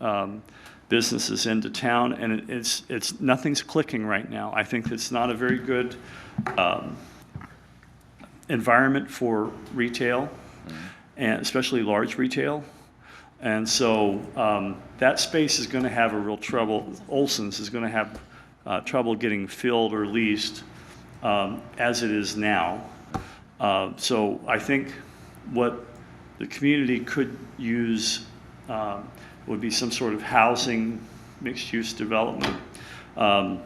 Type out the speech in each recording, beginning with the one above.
um, businesses into town, and it- it's, it's, nothing's clicking right now. I think it's not a very good um, environment for retail, and especially large retail. And so um, that space is going to have a real trouble, Olson's is going to have uh, trouble getting filled or leased um, as it is now. Uh, So I think what the community could use um, would be some sort of housing, mixed-use development. Um,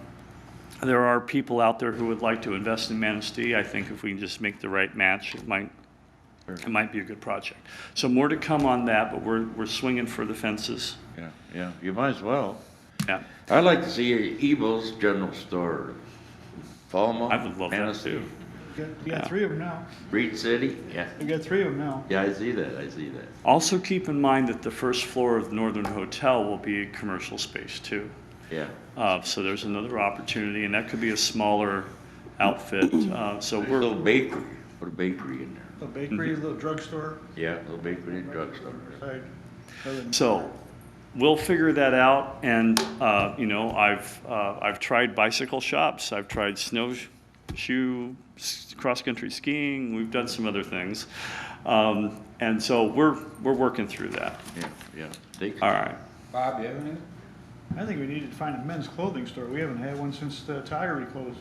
There are people out there who would like to invest in Manistee. I think if we can just make the right match, it might it might be a good project. So more to come on that, but we're, we're swinging for the fences. Yeah, yeah, you might as well. Yeah, I'd like to see Evil's General Store, Falmouth. I would love that Annecy, too. You got- You got three of them now. Reed City, yeah, You got three of them now. yeah, I see that, I see that. Also, keep in mind that the first floor of the Northern Hotel will be a commercial space too. Yeah, Uh, so there's another opportunity, and that could be a smaller outfit. Uh, so There's a little we're, bakery, put a bakery in there. A bakery, a little drugstore, Yeah, a little bakery and drugstore. right? Other than- so we'll figure that out. And, uh, you know, I've, uh, I've tried bicycle shops, I've tried snowshoe, s- cross-country skiing, we've done some other things. Um, and so we're, we're working through that. Yeah, yeah. Take- All right. Bob, you have anything? I think we need to find a men's clothing store. We haven't had one since the Tigery closed,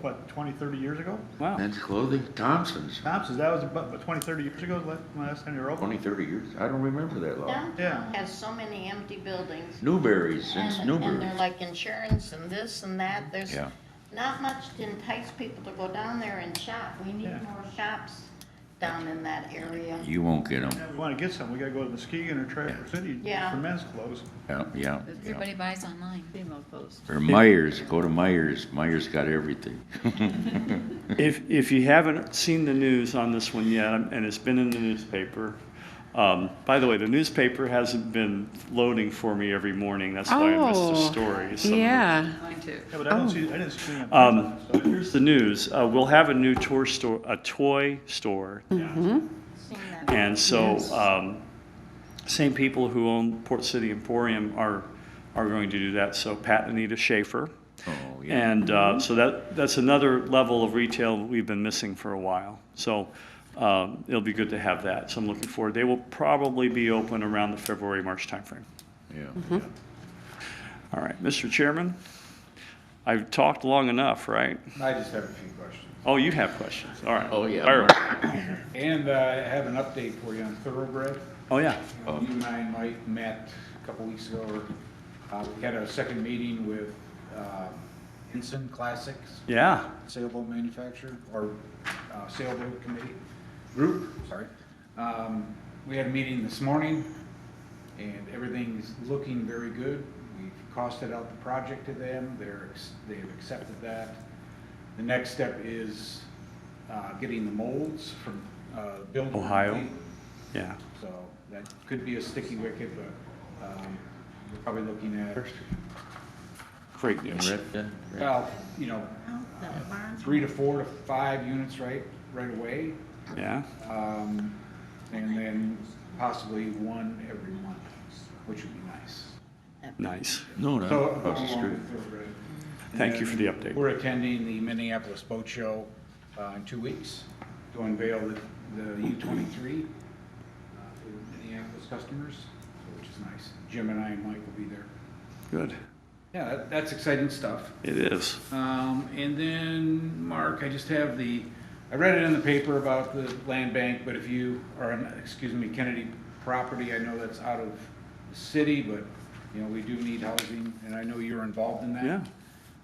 what, 20, 30 years ago? Wow. Men's clothing, Thompson's, Thompson's, that was about what, 20, 30 years ago, la- last time you were open? twenty, thirty years, I don't remember that long. Yeah. Downtown has so many empty buildings. Newberry's, since And, and they're Newberry's. like insurance and this and that, there's Yeah. not much to entice people to go down there and shop. We Yeah. need more shops down in that area. You won't get them, If we want to get some, we got to go to Muskegon or Traverse City Yeah. for men's clothes. yeah, yeah. Everybody buys online. Or Myers, go to Myers, Myers got everything. If, if you haven't seen the news on this one yet, um, and it's been in the newspaper, um, by the way, the newspaper hasn't been loading for me every morning, that's why I missed the Oh, story. Some of it- Yeah, Mine too. Yeah, but I don't see, I didn't see any on Um, Thompson's, so- here's the news, uh, we'll have a new toy store, a toy store. Seen that. And so, um, same people who own Port City Emporium are, are going to do that, so Pat and Anita Schaefer. Oh, yeah. And uh, so that, that's another level of retail we've been missing for a while. So um, it'll be good to have that. So I'm looking forward. They will probably be open around the February, March timeframe. Yeah. Mm-hmm. All right, Mr. Chairman, I've talked long enough, right? I just have a few questions. Oh, you have questions. All right. Oh, yeah. Fire away. And uh, I have an update for you on Thoroughbred. Oh, yeah. You know, You and I, Mike, met a couple weeks ago. Uh, We had our second meeting with uh, Ensign Classics Yeah. sailboat manufacturer, or uh, sailboat committee, group, sorry. Um, We had a meeting this morning, and everything's looking very good. We've costed out the project to them, they're, ex- they've accepted that. The next step is uh, getting the molds from uh, building. Ohio? Yeah. So that could be a sticky wicket, but um, we're probably looking at, Great news. well, you know, Oh, that barn's- three to four to five units right, right away. Yeah. Um, and then possibly one every month, which would be nice. Nice. No, So, no, across the along street. with Thoroughbred. Thank you for the And update. We're attending the Minneapolis Boat Show, uh, in two weeks to unveil the, the U twenty-three, uh, to Minneapolis customers, which is nice. Jim and I and Mike will be there. Good. Yeah, that, that's exciting stuff. It is. Um, and then, Mark, I just have the, I read it in the paper about the land bank, but if you are on, excuse me, Kennedy property, I know that's out of the city, but, you know, we do need housing, and I know you're involved in that. Yeah.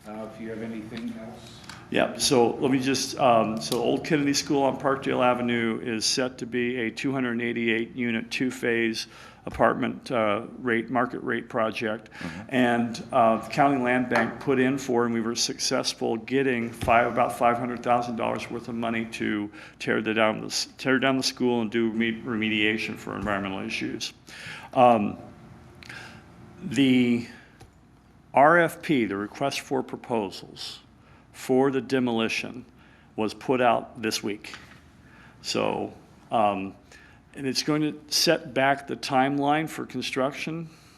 Uh, if you have anything else, Yep, so let me just, um, so Old Kennedy School on Parkdale Avenue is set to be a 288-unit, two-phase apartment uh, rate, market rate project. And uh, the County Land Bank put in for, and we were successful getting five, about $500,000 worth of money to tear the down, the s- tear down the school and do reme- remediation for environmental issues. Um, The RFP, the request for proposals, for the demolition was put out this week. So, um, and it's going to set back the timeline for construction